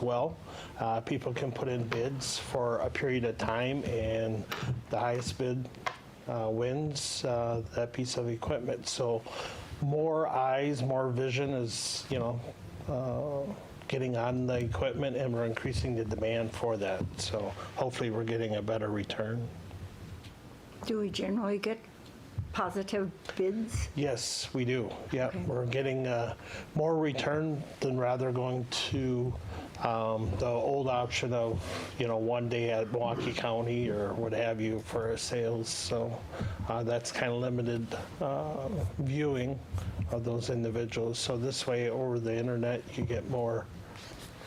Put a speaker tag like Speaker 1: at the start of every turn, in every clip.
Speaker 1: well. Uh, People can put in bids for a period of time, and the highest bid uh, wins uh, that piece of equipment. So more eyes, more vision is, you know, uh, getting on the equipment, and we're increasing the demand for that. So hopefully, we're getting a better return.
Speaker 2: Do we generally get positive bids?
Speaker 1: Yes, we do. Yeah,
Speaker 2: Okay.
Speaker 1: we're getting uh, more return than rather going to um, the old option of, you know, one day at Milwaukee County or what have you for sales. So uh, that's kind of limited uh, viewing of those individuals. So this way, over the internet, you get more,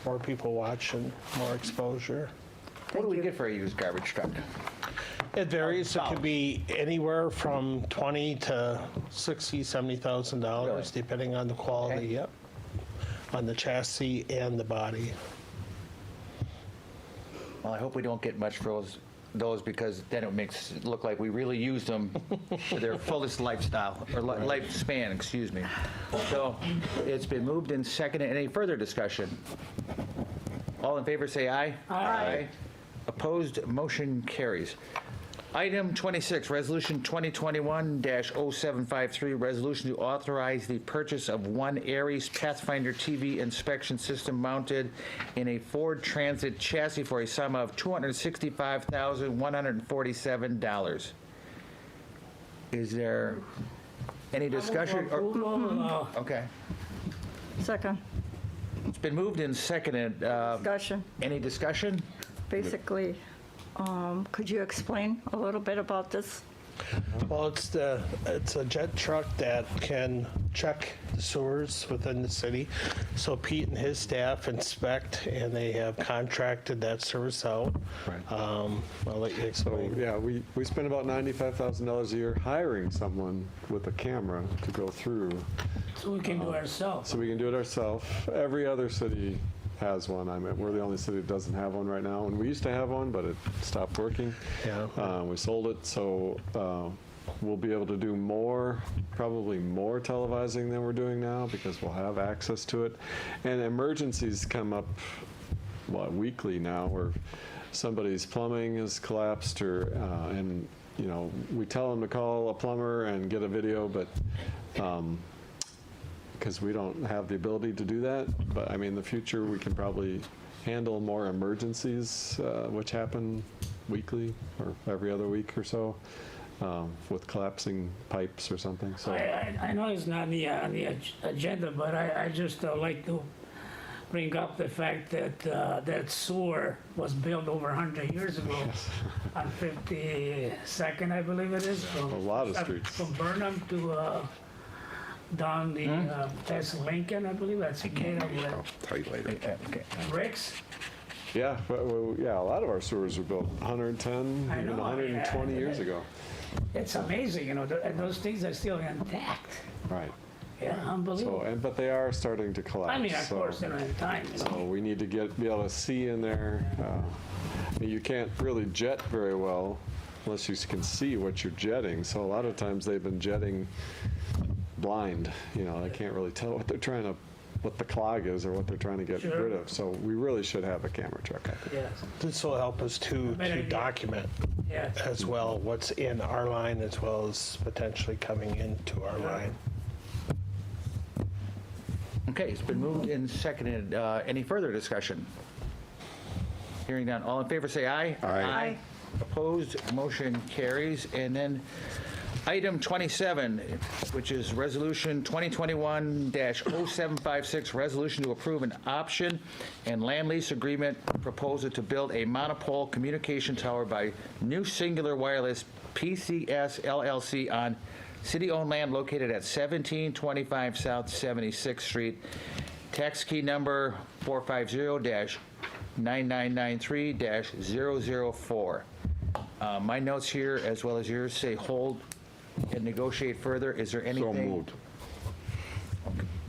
Speaker 1: more people watching, more exposure.
Speaker 3: What do we
Speaker 2: you.
Speaker 3: get for a used garbage truck?
Speaker 1: It varies. It could be anywhere from 20 to 60, 70,000
Speaker 3: Really?
Speaker 1: dollars, depending on the quality,
Speaker 3: Okay.
Speaker 1: yep. On the chassis and the body.
Speaker 3: Well, I hope we don't get much for those, those because then it makes it look like we really used them to their fullest lifestyle, or li- lifespan, excuse me. So it's been moved and seconded. Any further discussion? All in favor, say aye. Aye. Opposed, motion carries. Item 26, Resolution 2021-0753, resolution to authorize the purchase of one Aries Pathfinder TV inspection system mounted in a Ford Transit chassis for a sum of $265,147. Is there any discussion? or- Okay.
Speaker 2: Second
Speaker 3: It's been moved and seconded. Uh,
Speaker 2: discussion,
Speaker 3: Any discussion?
Speaker 2: basically, um, could you explain a little bit about this?
Speaker 1: Well, it's the, it's a jet truck that can check the sewers within the city. So Pete and his staff inspect, and they have contracted that service out.
Speaker 4: Right.
Speaker 1: Um, I'll let you
Speaker 4: So,
Speaker 1: explain.
Speaker 4: yeah, we, we spend about $95,000 a year hiring someone with a camera to go through,
Speaker 5: So we can
Speaker 4: Oh.
Speaker 5: do ourselves.
Speaker 4: so we can do it ourselves. Every other city has one, I mean, we're the only city that doesn't have one right now, and we used to have one, but it stopped working.
Speaker 1: Yeah.
Speaker 4: Uh, We sold it, so uh, we'll be able to do more, probably more televising than we're doing now, because we'll have access to it. And emergencies come up what weekly now where somebody's plumbing has collapsed or uh, and you know we tell them to call a plumber and get a video but because Um, we don't have the ability to do that but i mean in the future we can probably handle more emergencies uh, which happen weekly or every other week or so um, with collapsing pipes or something so
Speaker 5: I, I, I know it's not on the, uh, on the ag- agenda, but I, I just uh, like to bring up the fact that, uh, that sewer was built over hundred years ago on Fifty-second, I believe it is. A
Speaker 4: lot of streets.
Speaker 5: From Burnham to, uh, down the,
Speaker 4: Hmm?
Speaker 5: uh, past Lincoln, I believe, that's Cicada with
Speaker 6: Tell you later.
Speaker 3: Okay.
Speaker 5: bricks.
Speaker 4: yeah but, well, yeah a lot of our sewers were built 110
Speaker 5: I
Speaker 4: even
Speaker 5: know, oh, I-
Speaker 4: 120
Speaker 5: I-
Speaker 4: years ago
Speaker 5: It's amazing, you know, th- and those things are still intact.
Speaker 4: right
Speaker 5: Yeah,
Speaker 4: so
Speaker 5: unbelievable.
Speaker 4: and but they are starting to collapse
Speaker 5: I mean, of
Speaker 4: so-
Speaker 5: course, they're in time, you know.
Speaker 4: So Uh, we need to get, be able to see in there. uh, You can't really jet very well unless you can see what you're jetting. So a lot of times they've been jetting blind, you know, they can't really tell what they're trying to, what the clog is or what they're trying to get
Speaker 5: Sure.
Speaker 4: rid of. So we really should have a camera truck, I think.
Speaker 5: Yes,
Speaker 1: This will help us to,
Speaker 5: Better
Speaker 1: to
Speaker 5: idea.
Speaker 1: document
Speaker 5: yes.
Speaker 1: as well what's in our line as well as potentially coming into our line.
Speaker 3: Okay, it's been moved and seconded. Uh, Any further discussion? Hearing none. All in favor, say aye.
Speaker 6: Aye.
Speaker 2: Aye.
Speaker 3: Opposed, motion carries. And then item 27, which is Resolution 2021-0756, resolution to approve an option and land lease agreement proposal to build a monopole communication tower by New Singular Wireless PCS LLC on city-owned land located at 1725 South 76th Street, tax key number 450-9993-004. Uh, My notes here, as well as yours, say hold and negotiate further. Is there anything?
Speaker 6: So moved.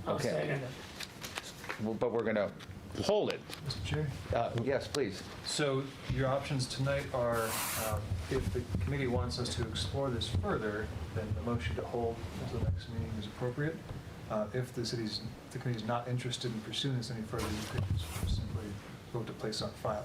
Speaker 5: I'll
Speaker 3: Okay.
Speaker 5: second it.
Speaker 3: Well, But we're going to hold it.
Speaker 7: Mr. Chair?
Speaker 3: Uh, Yes, please.
Speaker 7: So your options tonight are, um, if the committee wants us to explore this further, then the motion to hold until the next meeting is appropriate. Uh, If the city's, the committee's not interested in pursuing this any further, you could just simply place on file.